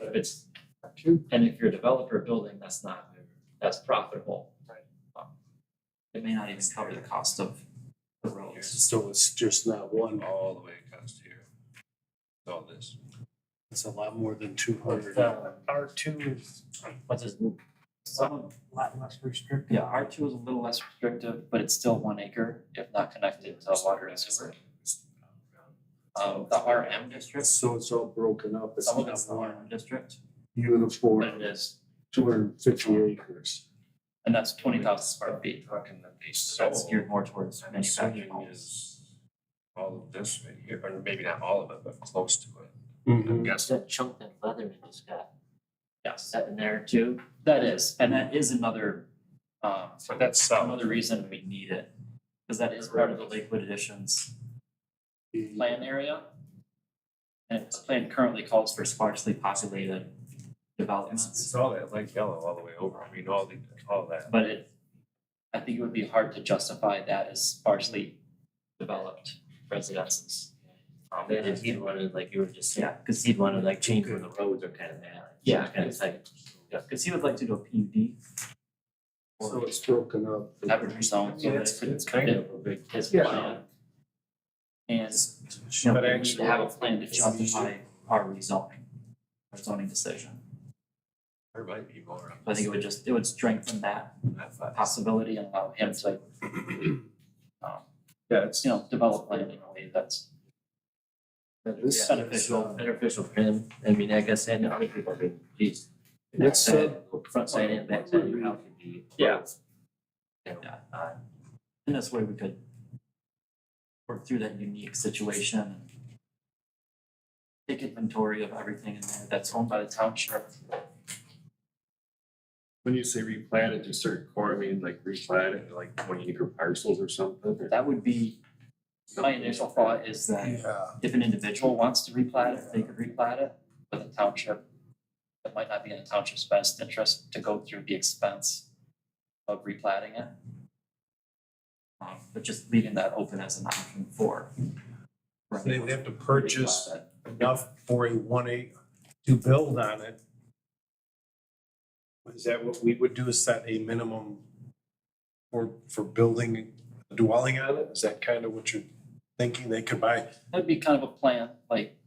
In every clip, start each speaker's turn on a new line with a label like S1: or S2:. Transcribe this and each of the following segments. S1: if it's, and if you're a developer building, that's not, that's profitable.
S2: Right.
S1: Um, It may not even cover the cost of the roads.
S2: So it's just that one,
S3: all the way across here. All this.
S2: it's a lot more than two hundred.
S4: R two is
S1: What's this?
S4: some, lot less restrictive.
S1: Yeah, R two is a little less restrictive, but it's still one acre if not connected to water and sewer. Um, the R M district,
S2: So it's all broken up, it's
S1: some of it's
S2: not
S1: the R
S2: one
S1: M district, but it
S2: uniform,
S1: is,
S2: two hundred and fifty acres.
S1: and that's twenty thousand square feet.
S3: Talking that they
S1: So that's
S3: sold,
S1: geared more towards
S3: I'm
S1: manufacturing
S3: assuming
S1: homes.
S3: is all of this right here, or maybe not all of it, but close to it.
S5: Mm-hmm.
S2: Mm-hmm.
S3: I'm guessing.
S6: That chunk that Leatherman just got,
S1: Yes,
S6: that in there too,
S1: that is, and that is another, um,
S3: So that's south.
S1: another reason we need it. Cause that is part of the Lakewood additions plan area. And the plan currently calls for sparsely populated
S3: It's,
S1: developments,
S3: it's all that light yellow all the way over. I mean, all the, all that.
S1: but it, I think it would be hard to justify that as sparsely developed residences.
S6: um, they just, he'd wanted, like you were just saying,
S1: Yeah, cause he,
S6: he'd wanted like change where the roads are kind of bad.
S1: Yeah.
S6: Kind of like,
S1: yeah, cause he would like to do a PUD.
S2: So it's broken up.
S1: Average zone, so
S3: Yeah,
S1: that's
S3: it's, it's kind of a big.
S6: his
S2: Yeah.
S6: plan.
S1: And, you know,
S3: But
S1: we need to
S3: actually-
S1: have a plan to justify our rezoning, our zoning decision.
S3: There might be more.
S1: So I think it would just, it would strengthen that possibility and allow him to, um,
S3: Yeah, it's.
S1: you know, develop land in a way that's
S2: This is,
S1: beneficial.
S2: uh,
S6: Beneficial for him, I mean, I guess, and other people, I mean, geez.
S2: Let's,
S6: back side,
S1: uh,
S6: Front side and back side, your house could be.
S1: Yeah.
S6: You know,
S1: Yeah.
S6: uh,
S1: In this way, we could work through that unique situation and take inventory of everything in there that's owned by the township.
S7: When you say replat it to certain core, I mean like replat it to, like twenty acre parcels or something? or-
S1: That would be, my initial thought is that
S2: yeah,
S1: if an individual wants to replat it, they could replat it, but the township, it might not be in the township's best interest to go through the expense of replatting it. Um, but just leaving that open as an option for.
S2: They- they have to
S1: purchase.
S2: enough for a one acre to build on it. Is that what we would do, is set a minimum for, for building a dwelling on it? Is that kind of what you're thinking? They could buy
S1: That'd be kind of a plan, like,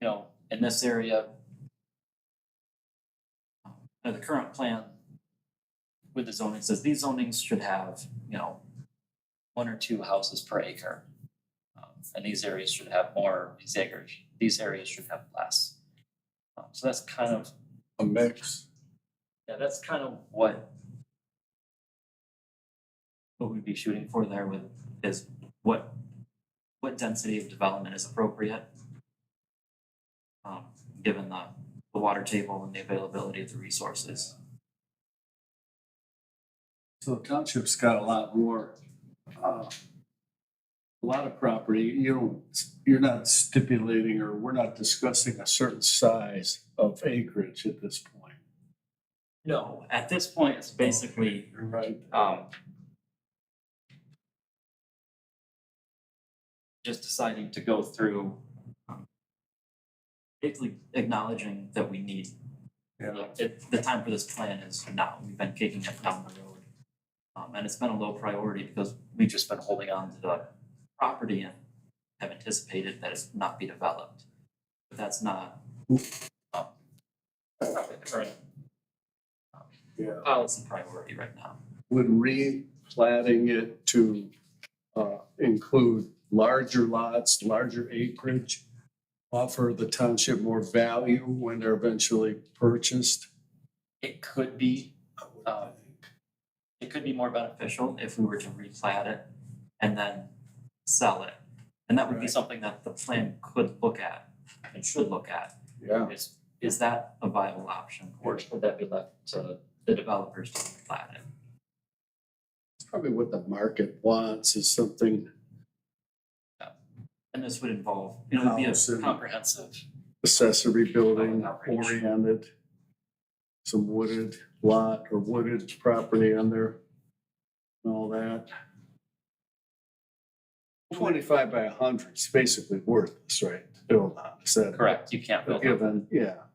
S1: you know, in this area. Now, the current plan with the zoning says these zonings should have, you know, one or two houses per acre. Um, And these areas should have more, these acres, these areas should have less. Um, So that's kind of,
S2: a mix.
S1: yeah, that's kind of what what we'd be shooting for there with is what what density of development is appropriate. Um, given the the water table and the availability of the resources.
S5: So the township's got a lot more, uh, a lot of property, you don't, you're not stipulating or we're not discussing a certain size of acreage at this point.
S1: No, at this point, it's basically
S5: Right.
S1: um just deciding to go through um, basically acknowledging that we need
S5: Yeah.
S1: it, the time for this plan is now, we've been kicking it down the road. Um, and it's been a low priority because we've just been holding on to the property and have anticipated that it's not be developed. But that's not, um, that's not the current um,
S5: Yeah.
S1: policy priority right now.
S5: Would replatting it to, uh, include larger lots, larger acreage, offer the township more value when they're eventually purchased?
S1: It could be, um, it could be more beneficial if we were to replat it and then sell it. And that would be
S5: Right.
S1: something that the plan could look at and should look at.
S5: Yeah.
S1: Is, is that a viable option
S6: Or
S1: or
S6: should that be left to,
S1: the developers to replat it?
S5: Probably what the market wants is something
S1: And this would involve, you know, it'd be
S5: House
S1: a
S5: and-
S1: comprehensive,
S5: accessory building
S1: Outreach.
S5: oriented. Some wooded lot or wooded property on there and all that. Twenty-five by a hundred is basically worthless, right, to build on, is that?
S1: correct, you can't build up
S5: Given, yeah,